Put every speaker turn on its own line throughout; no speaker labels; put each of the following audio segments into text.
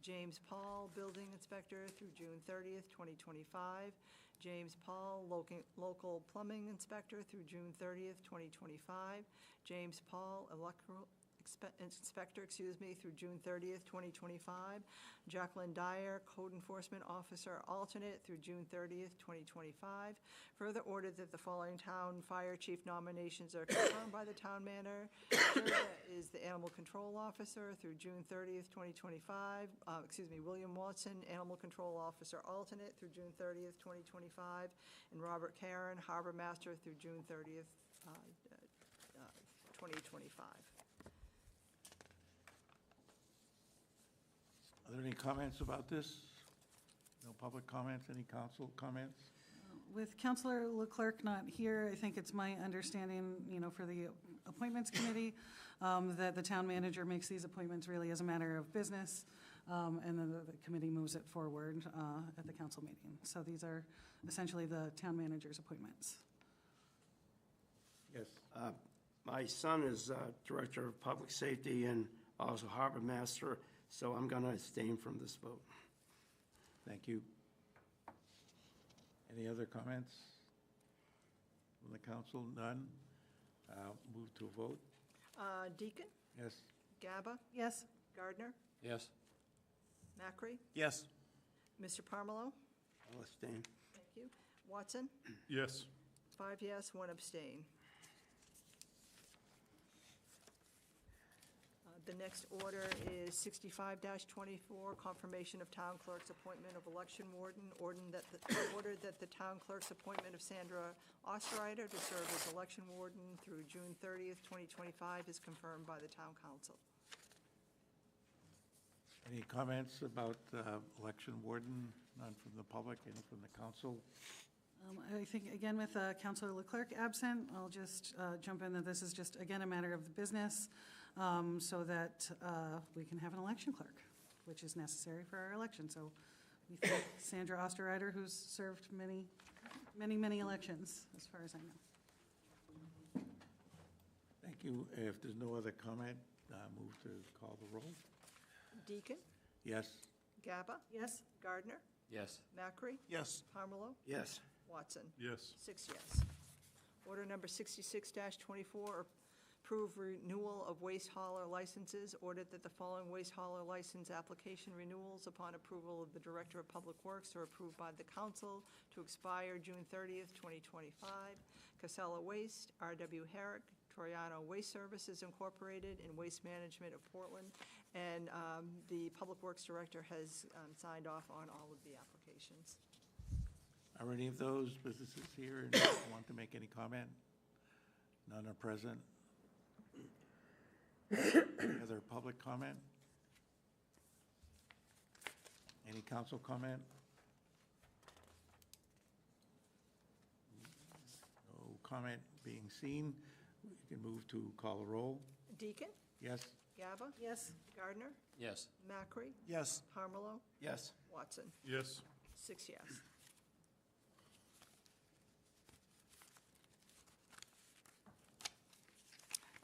James Paul, Building Inspector, through June 30th, 2025. James Paul, loca- Local Plumbing Inspector, through June 30th, 2025. James Paul, Electrical Expe- Inspector, excuse me, through June 30th, 2025. Jacqueline Dyer, Code Enforcement Officer Alternate, through June 30th, 2025. Further ordered that the following town fire chief nominations are confirmed by the town manager. Sherda Is the Animal Control Officer through June 30th, 2025. Uh, Excuse me, William Watson, Animal Control Officer Alternate, through June 30th, 2025. And Robert Karen, Harbor Master, through June 30th, uh, uh, 2025.
Are there any comments about this? No public comments, any council comments?
With Counselor Leclerc not here, I think it's my understanding, you know, for the Appointments Committee, um, that the town manager makes these appointments really as a matter of business, um, and then the- the committee moves it forward uh, at the council meeting. So these are essentially the town manager's appointments.
Yes.
My son is uh, Director of Public Safety and also Harbor Master, so I'm going to abstain from this vote.
Thank you. Any other comments from the council? None? Uh, Move to a vote?
Uh, Deacon,
Yes?
Gaba,
Yes?
Gardner,
Yes.
Macri,
Yes.
Mr. Parmelo.
I'll abstain.
Thank you. Watson,
Yes.
five yes, one abstain. Uh, The next order is 65-24, confirmation of town clerk's appointment of election warden, ordered that, the- ordered that the town clerk's appointment of Sandra Osterreiter to serve as election warden through June 30th, 2025 is confirmed by the town council.
Any comments about uh, election warden? None from the public, any from the council?
Um, I think, again, with uh, Counselor Leclerc absent, I'll just uh, jump in that this is just, again, a matter of the business, um, so that uh, we can have an election clerk, which is necessary for our election. So we thank Sandra Osterreiter, who's served many, many, many elections, as far as I know.
Thank you. If there's no other comment, uh, move to call the roll?
Deacon,
Yes?
Gaba,
Yes?
Gardner,
Yes.
Macri,
Yes.
Parmelo,
Yes,
Watson.
Yes.
Six yes. Order number 66-24, approve renewal of waste hauler licenses. Ordered that the following waste hauler license application renewals upon approval of the Director of Public Works are approved by the council to expire June 30th, 2025. Casella Waste, R.W. Herrick, Troyano Waste Services Incorporated, and Waste Management of Portland. And um, the Public Works Director has um, signed off on all of the applications.
Are any of those businesses here and want to make any comment? None are present. Any Other public comment? Any council comment? No comment being seen. We can move to call a roll.
Deacon,
Yes?
Gaba,
Yes.
Gardner,
Yes.
Macri,
Yes.
Harmelo,
yes.
Watson.
Yes.
Six yes.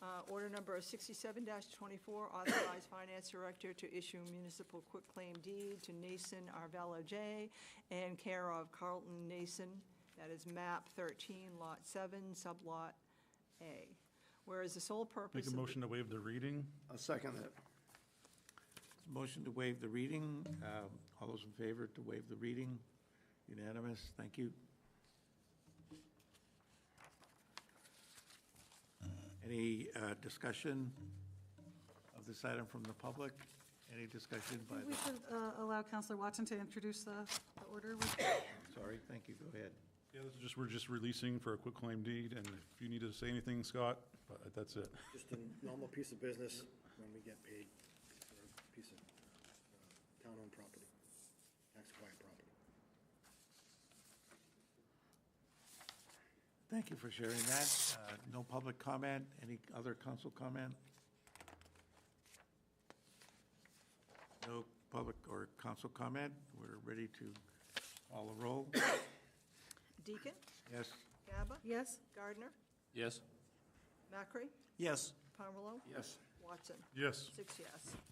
Uh, Order number 67-24, authorize finance director to issue municipal quitclaim deed to Nason Arvelo J. and care of Carlton Nason, that is map 13, lot 7, sublot A. Whereas the sole purpose
Make a
of the-
motion to waive the reading?
I'll second that.
Motion to waive the reading. Uh, All those in favor to waive the reading? Unanimous. Thank you. Any uh, discussion of this item from the public? Any discussion by
We
the,
should uh, allow Counselor Watson to introduce the the order. with-
sorry, thank you, go ahead.
Yeah, this is just, we're just releasing for a quick claim deed, and if you need to say anything, Scott, uh, that's it.
Just a normal piece of business when we get paid for a piece of uh, town-owned property, tax-acquired property.
Thank you for sharing that. Uh, No public comment. Any other council comment? No public or council comment. We're ready to call the roll.
Deacon,
Yes?
Gaba,
Yes?
Gardner,
Yes.
Macri,
Yes.
Palmerlo,
Yes,
Watson.
Yes,
Six yes.